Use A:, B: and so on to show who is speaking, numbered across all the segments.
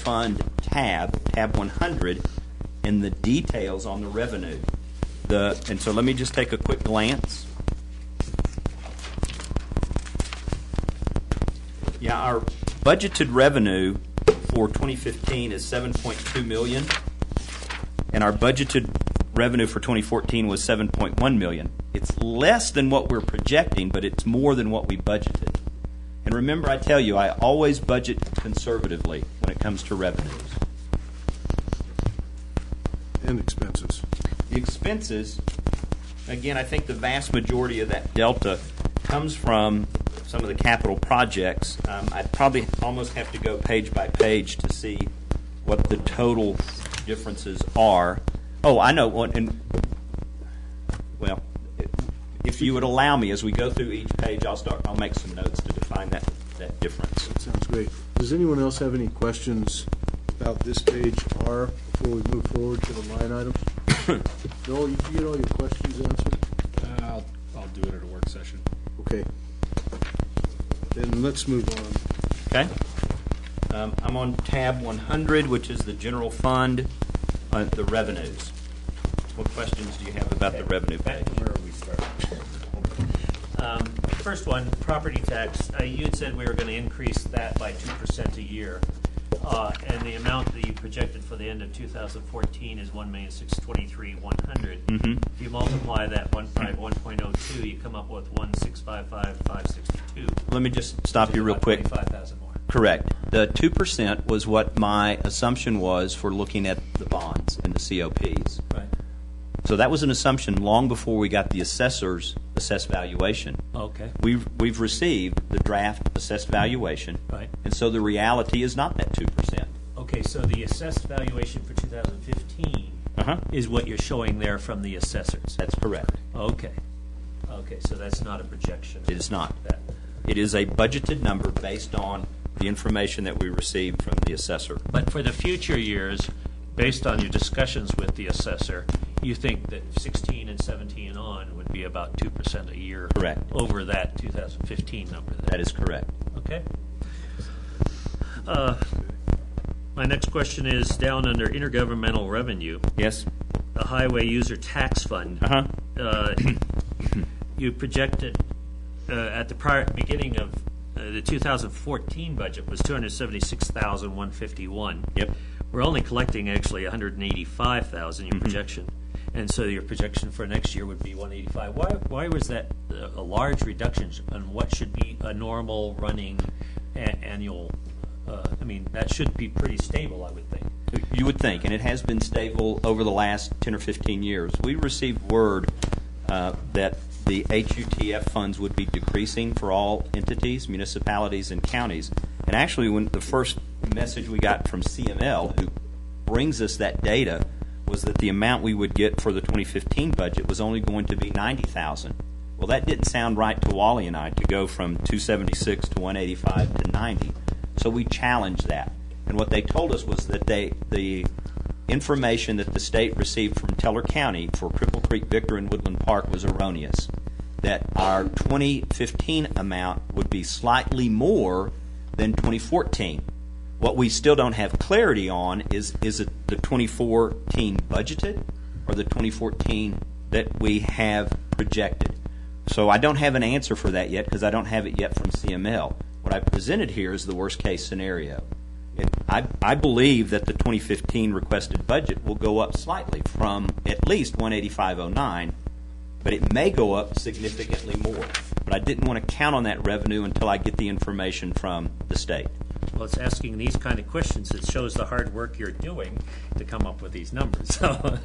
A: Fund tab, tab 100, and the details on the revenue. The, and so let me just take a quick glance. Yeah, our budgeted revenue for 2015 is 7.2 million, and our budgeted revenue for 2014 was 7.1 million. It's less than what we're projecting, but it's more than what we budgeted. And remember, I tell you, I always budget conservatively when it comes to revenues.
B: and expenses.
A: The expenses, again, I think the vast majority of that delta comes from some of the capital projects. Um, I'd probably almost have to go page by page to see what the total differences are. Oh, I know, one, and, well, if you would allow me, as we go through each page, I'll start, I'll make some notes to define that, that difference.
B: That sounds great. Does anyone else have any questions about this page R before we move forward to the line items? Noel, you get all your questions answered?
C: Uh, I'll, I'll do it at a work session.
B: Okay. Then let's move on.
A: Okay. Um, I'm on tab 100, which is the general fund, uh, the revenues. What questions do you have about the revenue
D: Back
A: page?
D: to where we started. Um, First one, property tax. Uh, You had said we were going to increase that by 2% a year. Uh, And the amount that you projected for the end of 2014 is one million six twenty-three one hundred.
A: Mm-hmm.
D: If you multiply that 151.02, you come up with 1,655,562.
A: Let me just stop you real quick.
D: Five thousand more.
A: Correct. The 2% was what my assumption was for looking at the bonds and the COPs.
D: Right.
A: So that was an assumption long before we got the assessor's assessed valuation.
D: Okay.
A: We've, we've received the draft assessed valuation.
D: Right.
A: And so the reality is not that 2%.
D: Okay, so the assessed valuation for 2015
A: Uh-huh.
D: is what you're showing there from the assessors?
A: That's correct.
D: Okay. Okay, so that's not a projection?
A: It is not.
D: That-
A: It is a budgeted number based on the information that we received from the assessor.
D: But for the future years, based on your discussions with the assessor, you think that 16 and 17 and on would be about 2% a year?
A: Correct.
D: Over that 2015 number? then?
A: That is correct.
D: Okay. Uh, My next question is down under intergovernmental revenue.
A: Yes?
D: the highway user tax fund.
A: Uh-huh.
D: Uh, You projected uh, at the prior, beginning of, uh, the 2014 budget was 276,151.
A: Yep.
D: We're only collecting actually 185,000,
A: Mm-hmm.
D: your projection. And so your projection for next year would be 185. Why, why was that uh, a large reduction on what should be a normal running a- annual? uh, I mean, that should be pretty stable, I would think.
A: You would think, and it has been stable over the last 10 or 15 years. We received word uh, that the HUTF funds would be decreasing for all entities, municipalities, and counties. And actually, when the first message we got from CML, who brings us that data, was that the amount we would get for the 2015 budget was only going to be 90,000. Well, that didn't sound right to Wally and I to go from 276 to 185 to 90. So we challenged that. And what they told us was that they, the information that the state received from Teller County for Cripple Creek, Victor, and Woodland Park was erroneous. That our 2015 amount would be slightly more than 2014. What we still don't have clarity on is, is it the 2014 budgeted or the 2014 that we have projected? So I don't have an answer for that yet because I don't have it yet from CML. What I presented here is the worst-case scenario. It- I, I believe that the 2015 requested budget will go up slightly from at least 18509, but it may go up significantly more. But I didn't want to count on that revenue until I get the information from the state.
D: Well, it's asking these kind of questions that shows the hard work you're doing to come up with these numbers. So,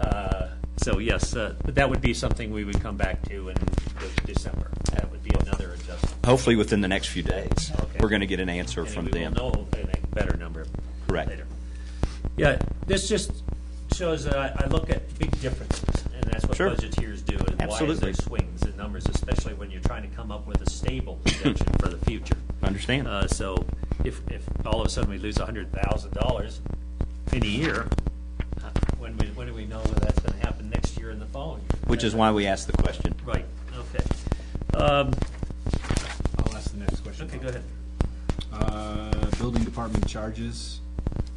D: uh, so yes, uh, but that would be something we would come back to in de- December. That would be another adjustment.
A: Hopefully, within the next few days,
D: Okay.
A: we're going to get an answer
D: And
A: from
D: we will
A: them.
D: know a better number
A: Correct.
D: later. Yeah, this just shows that I, I look at big differences, and that's what
A: Sure.
D: budgeteers do, and why is
A: Absolutely.
D: there swings in numbers, especially when you're trying to come up with a stable projection for the future.
A: Understand.
D: Uh, so if, if all of a sudden we lose hundred thousand dollars in a year, uh, when we, when do we know whether that's gonna happen next year and the following year?
A: Which is why we asked the question.
D: Right, okay. Um,
C: I'll ask the next question.
D: okay, go ahead.
C: Uh, building department charges,